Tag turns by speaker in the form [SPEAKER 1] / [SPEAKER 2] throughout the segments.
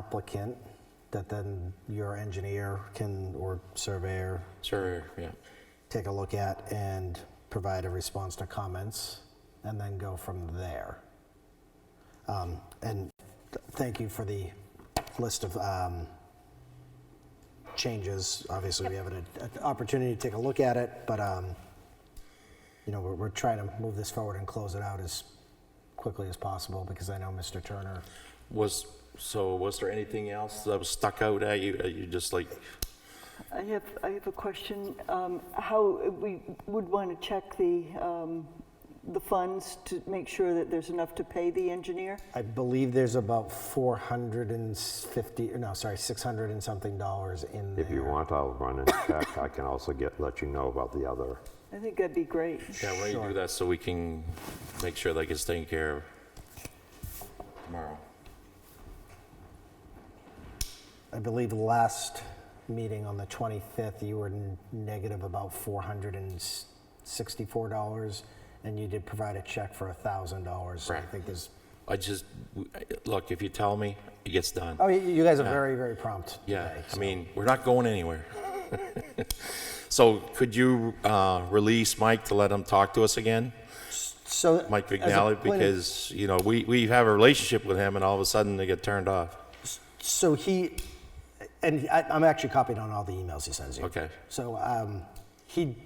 [SPEAKER 1] applicant that then your engineer can, or surveyor,
[SPEAKER 2] Sure, yeah.
[SPEAKER 1] take a look at and provide a response to comments, and then go from there. Um, And th- thank you for the list of um, changes. Obviously, we haven't had an opportunity to take a look at it, but, um, you know, we're we're trying to move this forward and close it out as quickly as possible, because I know Mr. Turner
[SPEAKER 2] Was, so was there anything else that was stuck out at you? Are you just like,
[SPEAKER 3] I have, I have a question. Um, How, we would want to check the, um, the funds to make sure that there's enough to pay the engineer?
[SPEAKER 1] I believe there's about 450, no, sorry, 600 and something dollars in there.
[SPEAKER 4] If you want, I'll run and check. I can also get, let you know about the other.
[SPEAKER 3] I think that'd be great.
[SPEAKER 2] yeah, why don't you do that so we can make sure that gets taken care of tomorrow?
[SPEAKER 1] I believe last meeting on the 25th, you were n- negative about $464, and you did provide a check for $1,000. So I
[SPEAKER 2] Correct.
[SPEAKER 1] think there's,
[SPEAKER 2] I just, look, if you tell me, it gets done.
[SPEAKER 1] oh, you- you guys are very, very prompt.
[SPEAKER 2] Yeah,
[SPEAKER 1] today,
[SPEAKER 2] I
[SPEAKER 1] so-
[SPEAKER 2] mean, we're not going anywhere. So could you uh, release Mike to let him talk to us again?
[SPEAKER 1] So th-
[SPEAKER 2] Mike
[SPEAKER 1] as a
[SPEAKER 2] McNally,
[SPEAKER 1] point of-
[SPEAKER 2] because, you know, we, we have a relationship with him and all of a sudden they get turned off.
[SPEAKER 1] So he, and I, I'm actually copied on all the emails he sends you.
[SPEAKER 2] Okay.
[SPEAKER 1] So um, he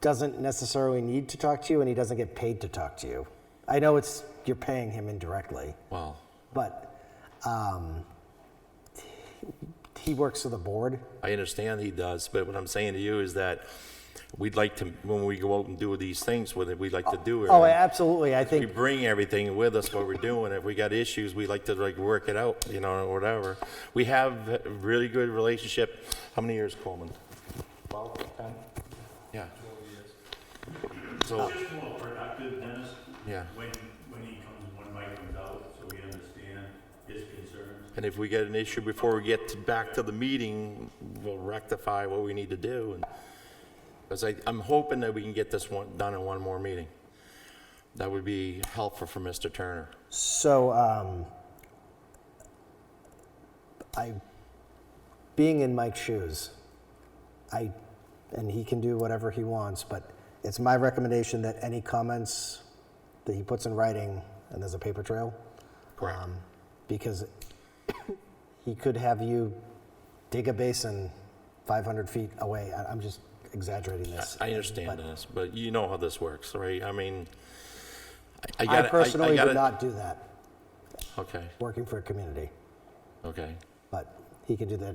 [SPEAKER 1] doesn't necessarily need to talk to you, and he doesn't get paid to talk to you. I know it's you're paying him indirectly,
[SPEAKER 2] Well,
[SPEAKER 1] but um, he works for the board.
[SPEAKER 2] I understand he does, but what I'm saying to you is that we'd like to, when we go out and do these things with it, we'd like to do it.
[SPEAKER 1] Oh, absolutely. I
[SPEAKER 2] We
[SPEAKER 1] think
[SPEAKER 2] bring everything with us, what we're doing. If we got issues, we like to like work it out, you know, or whatever. We have a really good relationship. How many years, Coleman? Yeah. So,
[SPEAKER 5] It's just more productive, Dennis,
[SPEAKER 2] yeah.
[SPEAKER 5] when, when he comes, when Mike comes out, so we understand his concerns.
[SPEAKER 2] And if we get an issue before we get to- back to the meeting, we'll rectify what we need to do. And Because I, I'm hoping that we can get this one, done in one more meeting. That would be helpful for Mr. Turner.
[SPEAKER 1] so. Um, I, being in Mike's shoes, I, and he can do whatever he wants, but it's my recommendation that any comments that he puts in writing, and there's a paper trail.
[SPEAKER 2] Correct.
[SPEAKER 1] um, Because he could have you dig a basin 500 feet away. I- I'm just exaggerating this.
[SPEAKER 2] I understand this, but you know how this works, right? I mean, I- I
[SPEAKER 1] I
[SPEAKER 2] got it.
[SPEAKER 1] personally
[SPEAKER 2] got
[SPEAKER 1] would not do that,
[SPEAKER 2] Okay,
[SPEAKER 1] working for a community,
[SPEAKER 2] okay.
[SPEAKER 1] but he can do that.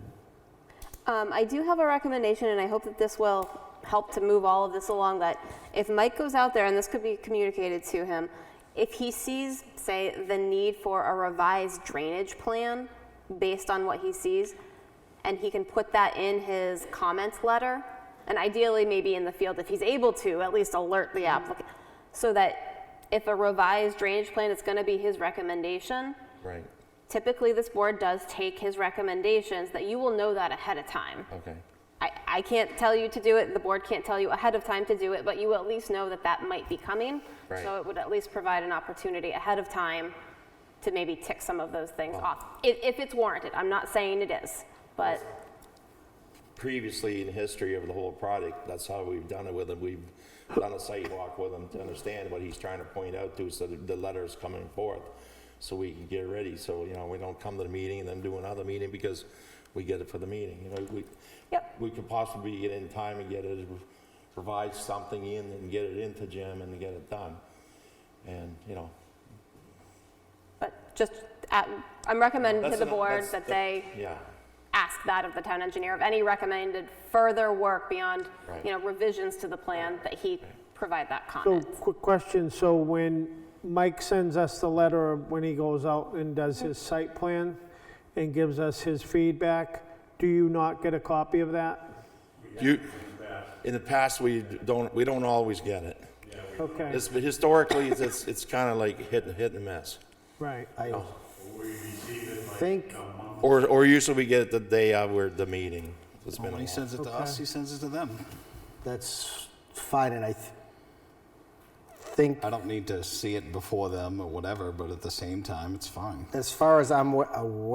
[SPEAKER 6] Um, I do have a recommendation, and I hope that this will help to move all of this along, that if Mike goes out there, and this could be communicated to him, if he sees, say, the need for a revised drainage plan based on what he sees, and he can put that in his comments letter, and ideally maybe in the field, if he's able to, at least alert the applicant, so that if a revised drainage plan is gonna be his recommendation,
[SPEAKER 2] Right,
[SPEAKER 6] typically this board does take his recommendations, that you will know that ahead of time.
[SPEAKER 2] okay.
[SPEAKER 6] I, I can't tell you to do it, the board can't tell you ahead of time to do it, but you will at least know that that might be coming.
[SPEAKER 2] Right.
[SPEAKER 6] So it would at least provide an opportunity ahead of time to maybe tick some of those things off, if, if it's warranted. I'm not saying it is, but
[SPEAKER 2] Previously in history of the whole product, that's how we've done it with him. We've done a sidewalk with him to understand what he's trying to point out to, so that the letter's coming forth, so we can get ready. So, you know, we don't come to the meeting and then do another meeting because we get it for the meeting, you know, we.
[SPEAKER 6] Yep.
[SPEAKER 2] We could possibly get in time and get it, provide something in and get it into Jim and get it done. And, you know,
[SPEAKER 6] But just, at- I'm recommending to
[SPEAKER 2] That's
[SPEAKER 6] the
[SPEAKER 2] an-
[SPEAKER 6] board
[SPEAKER 2] that's-
[SPEAKER 6] that they
[SPEAKER 2] yeah,
[SPEAKER 6] ask that of the town engineer, of any recommended further work beyond,
[SPEAKER 2] Right.
[SPEAKER 6] you know, revisions to the plan, that he provide that
[SPEAKER 7] So,
[SPEAKER 6] comment.
[SPEAKER 7] quick question, so when Mike sends us the letter, when he goes out and does his site plan and gives us his feedback, do you not get a copy of that?
[SPEAKER 2] You, in the past, we don't, we don't always get it.
[SPEAKER 7] Okay,
[SPEAKER 2] It's, historically, it's- it's, it's kind of like hit, and- hit and miss.
[SPEAKER 7] right.
[SPEAKER 1] I think,
[SPEAKER 2] Or, or usually we get it the day of where the meeting. It's been a
[SPEAKER 8] When he
[SPEAKER 2] while.
[SPEAKER 8] sends it to us, he sends it to them.
[SPEAKER 1] That's fine, and I th- think,
[SPEAKER 8] I don't need to see it before them or whatever, but at the same time, it's fine.
[SPEAKER 1] as far as I'm wa- aware.